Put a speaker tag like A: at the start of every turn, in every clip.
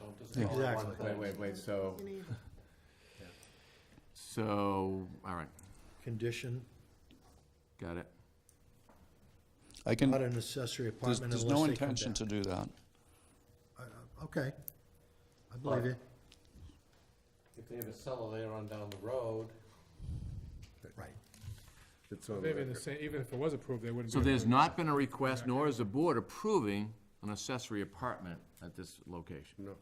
A: all at
B: Exactly.
A: one
C: Wait,
A: time.
C: wait, wait, so,
D: You need-
C: so, all right,
B: Condition,
C: got it.
A: I can,
B: not an accessory
A: there's,
B: apartment
A: there's
B: unless
A: no
B: they come
A: intention
B: down.
A: to do that.
B: Okay. I believe you.
E: If they have a cellar there on down the road,
B: Right.
C: It's on
F: They've been the same, even if it was approved, they wouldn't be.
C: So there's
F: approved.
C: not been a request, nor is the board approving an accessory apartment at this location.
G: No,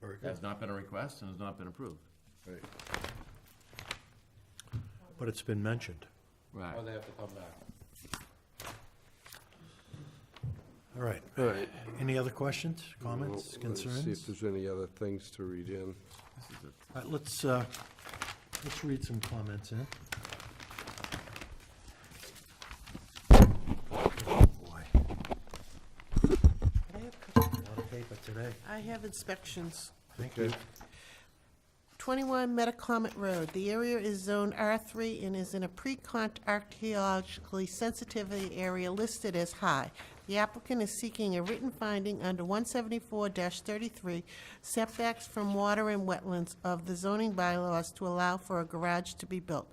B: Very good.
C: There's not been a request and has not been approved.
G: right.
B: But it's been mentioned.
C: Right.
E: or they have to come back.
B: All right.
G: All right.
B: Any other questions, comments,
G: Well, let's See if
B: concerns?
G: there's any other things to read in.
B: All right, let's, uh, let's read some comments in. Oh, Boy,
D: I have-
B: a lot of paper today.
D: I have inspections.
B: Thank you.
D: 21 Metacomet Road. The area is zoned R3 and is in a pre-con archaeologically sensitivity area listed as high. The applicant is seeking a written finding under 174-33 setbacks from water and wetlands of the zoning bylaws to allow for a garage to be built.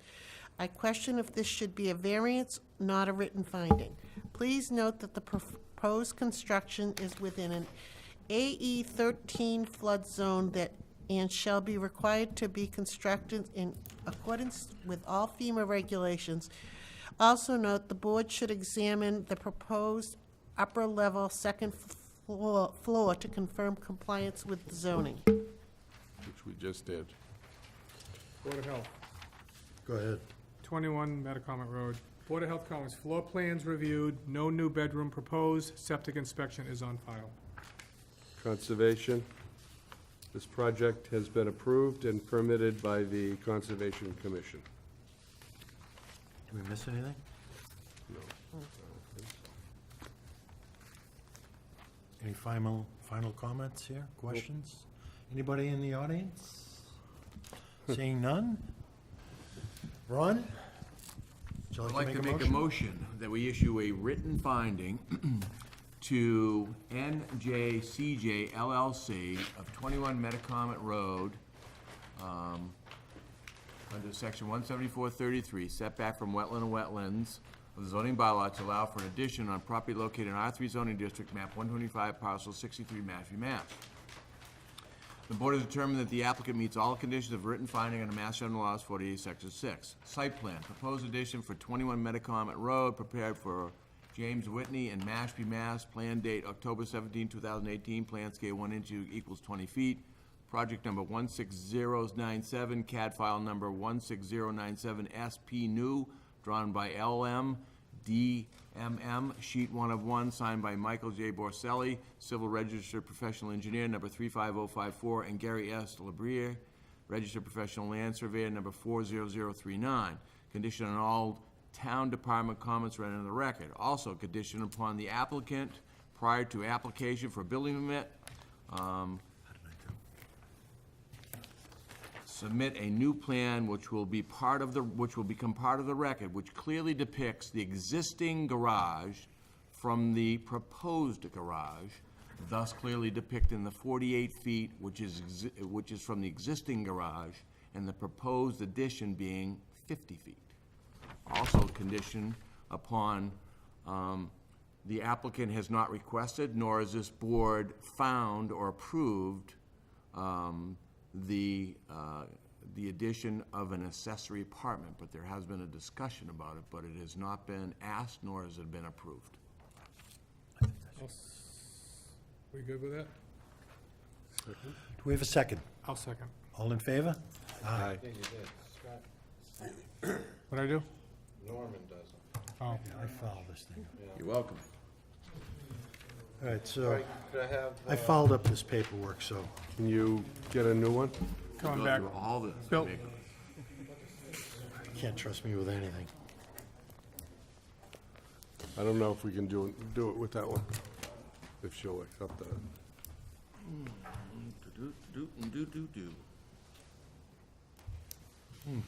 D: I question if this should be a variance, not a written finding. Please note that the proposed construction is within an AE 13 E flood zone that, and shall be required to be constructed in accordance with all FEMA regulations. Also note, the board should examine the proposed upper-level second floor, floor to confirm compliance with zoning.
G: Which we just did.
F: Board of Health,
B: Go ahead.
F: 21 Metacomet Road. Board of Health comments, floor plans reviewed, no new bedroom proposed, septic inspection is on file.
G: Conservation. This project has been approved and permitted by the Conservation Commission.
B: Did we miss anything? Any final, final comments here, questions? Anybody in the audience? Seeing none? Ron? Would you
C: I'd like to make a motion that we issue a written finding to NJCJ LLC of 21 Metacomet Road, um, under section 17433, setback from wetland and wetlands of the zoning bylaw to allow for an addition on property located in R3 zoning district, map 125, parcel 63, Mashpee, Mass. The board has determined that the applicant meets all conditions of written finding under Mass General Laws 48, Section 6. Site plan, proposed addition for 21 Metacomet Road, prepared for James Whitney and Mashpee, Mass. Plan date October 17, 2018, plan scale 1 inch equals 20 feet. Project number 16097, CAD file number 16097 SP new, drawn by LM DMM, sheet one of one, signed by Michael J. Borselli, civil registered professional engineer, number 35054, and Gary S. Labrie, registered professional land surveyor, number 40039. Condition on all town department comments read into the record. Also conditioned upon the applicant, prior to application for building permit, um, submit a new plan which will be part of the, which will become part of the record, which clearly depicts the existing garage from the proposed garage, thus clearly depicting the 48 feet, which is, exi- which is from the existing garage, and the proposed addition being 50 feet. Also conditioned upon, um, the applicant has not requested, nor has this board found or approved um, the, uh, the addition of an accessory apartment, but there has been a discussion about it, but it has not been asked nor has it been approved.
F: I'll s- We good with that?
B: Do we have a second?
F: I'll second.
B: All in favor?
G: Aye.
E: Yeah, you did. Scott,
F: What'd I do?
E: Norman does it.
F: Oh,
B: I filed this thing.
C: You're welcome.
B: All right,
E: All
B: so
E: right, could I have,
B: I fouled up this paperwork, so
G: Can you get a new one?
F: coming
C: Go
F: back.
C: through all this.
F: Bill.
C: Make-
B: you can't trust me with anything.
G: I don't know if we can do, it- do it with that one, if she'll accept that.
C: Do, do, do, do, do.